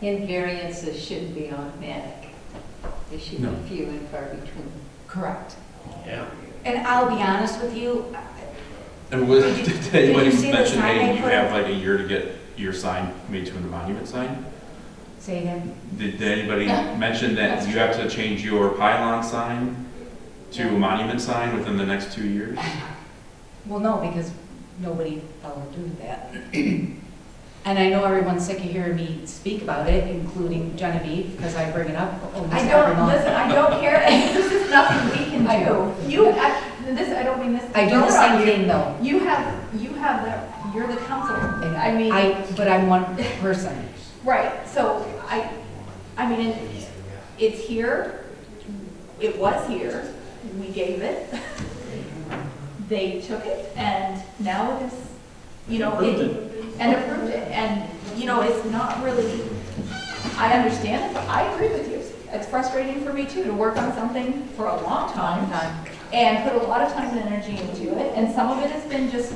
Invariances shouldn't be automatic. They should No. be few and far between. Correct. Yeah. And I'll be honest with you, And was, Did you- did did you anybody see the mention, sign hey, they you put have up? like a year to get your sign made to a monument sign? say again, Did did anybody No. mention that That's you true. have to change your pylon sign to a No. monument sign within the next two years? well, no, because nobody followed through with that. And I know everyone's sick of hearing me speak about it, including Genevieve, because I bring it up almost I every don't, month. listen, I don't care, this is nothing we can I do. know. You, I, this, I don't mean this. to I do the throw on same you. thing though. You have, you have the, you're the council, and I mean, I, but I'm one person. right, so I, I mean, it- it's here, it was here, we gave it. They took it and now it is, you know, it, and approved it, and, you know, it's not really, I understand, it, but I agree with you. It's frustrating for me too, to work on something for a long time, and put a lot of time and energy into it, and some of it has been just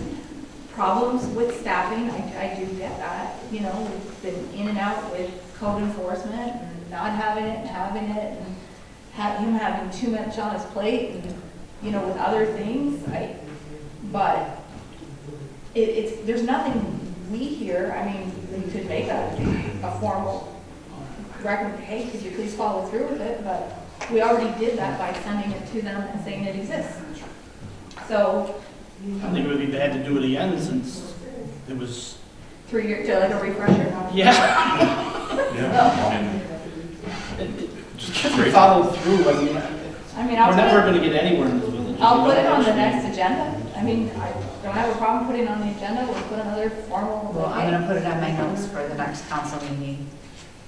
problems with staffing, I, I do get that, you know, we've been in and out with code enforcement, and not having it, and having it, and ha him having too much on his plate, and, you know, with other things, I, but it, it's, there's nothing we hear, I mean, we could make a, a formal record, hey, could you please follow through with it, but we already did that by sending it to them and saying it exists. So, I don't think it would be bad to do it again since it was, through your, to like a refresher. yeah, Yeah. And it- it just should great. be followed through. I mean, I mean, we're I'll never put it, going to get anywhere in this village. if I'll we put it don't on the actually- next agenda. I mean, I don't have a problem putting it on the agenda, we'll put another formal. Well, I'm gonna put it on my notes for the next council meeting.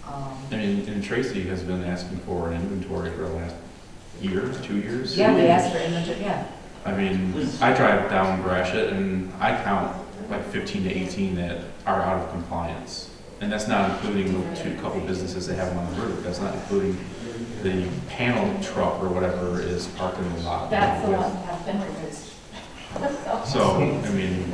Um, I mean, and Tracy has been asking for an inventory for the last year, two years. Yeah, they asked for inventory, yeah. I mean, I drive down Gratiot and I count like fifteen to eighteen that are out of compliance. And that's not including the two couple businesses that have them on the roof. That's not including the panel truck or whatever is parked in the lot. That's the with- one that's been removed. So, So, I mean,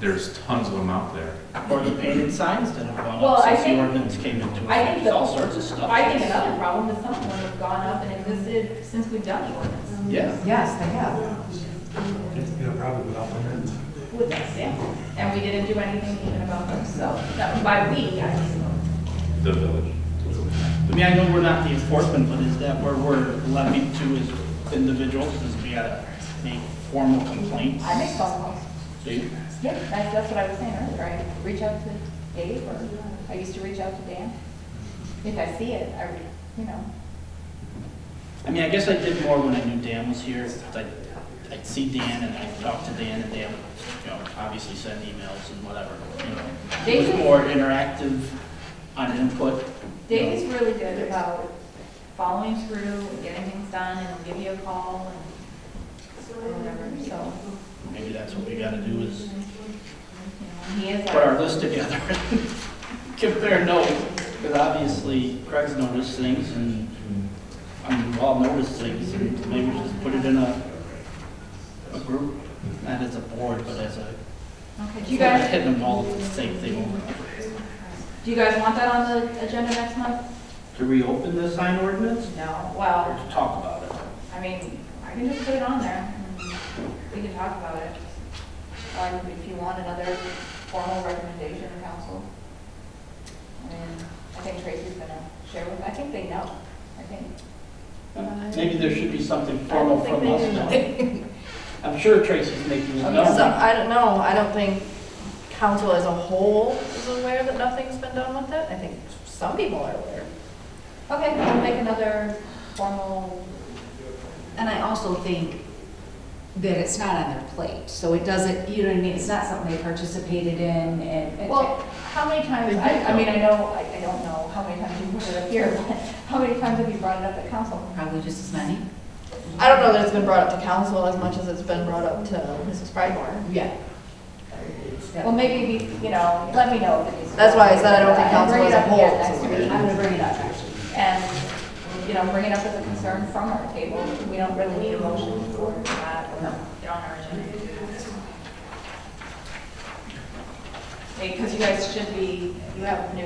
there's tons of them out there. Or the painted signs that have gone Well, up I since the think- ordinance came into effect. I think There's all the- sorts of stuff. I think another problem is some of them have gone up and existed since we've done the ordinance. Yeah. Yes, they have. It's been a problem with applicants. with us, yeah. And we didn't do anything even about them, so, that- by we, I mean, The village. I mean, I know we're not the enforcement, but is that where we're levied to as individuals? Is we gotta make formal complaints? I make phone calls. Do you? Yeah, that's, that's what I was saying earlier, I reach out to Dave, or I used to reach out to Dan. If I see it, I, re- you know, I mean, I guess I did more when I knew Dan was here. 'cause I'd, I'd see Dan and I'd talk to Dan and Dan would, you know, obviously send emails and whatever, you know. It was Jason- more interactive on input. you know. Dave is really good about following through, and getting things done, and he'll give you a call, and whatever, so, Maybe that's what we gotta do is you know, he is put our our, list together, compare notes, because obviously Craig's noticed things and, I mean, we've all noticed things, and maybe we just put it in a, a group, not as a board, but as a, okay, do you guys, hitting them all with the same thing over and over. do you guys want that on the agenda next month? To reopen the sign ordinance, No, or well, to talk about it? I mean, I can just put it on there, and we can talk about it. Or if you want another formal recommendation or council. I mean, I think Tracy's gonna share with, I think they know, I think. Maybe there should be something formal I don't from think us now. they I'm sure Tracy's making it Okay. So, known. I don't know, I don't think council as a whole is aware that nothing's been done with it. I think some people are aware. Okay, we'll make another formal, And I also think that it's not on their plate, so it doesn't, you know what I mean? It's not something they participated in and. and- well, how many times, I, I mean, I know, I, I don't know how many times you've heard it up here, but how many times have you brought it up at council? Probably just as many. I don't know that it's been brought up to council as much as it's been brought up to Mrs. Frymore. Yeah. Well, maybe, we- you know, let me know. if it needs- That's why I said I don't think And council bring as it a up whole is again next aware. week. I'm gonna bring it up, actually. and, you know, bring it up as a concern from our table. We don't really need a motion for that or get on our agenda. Because you guys should be, you have new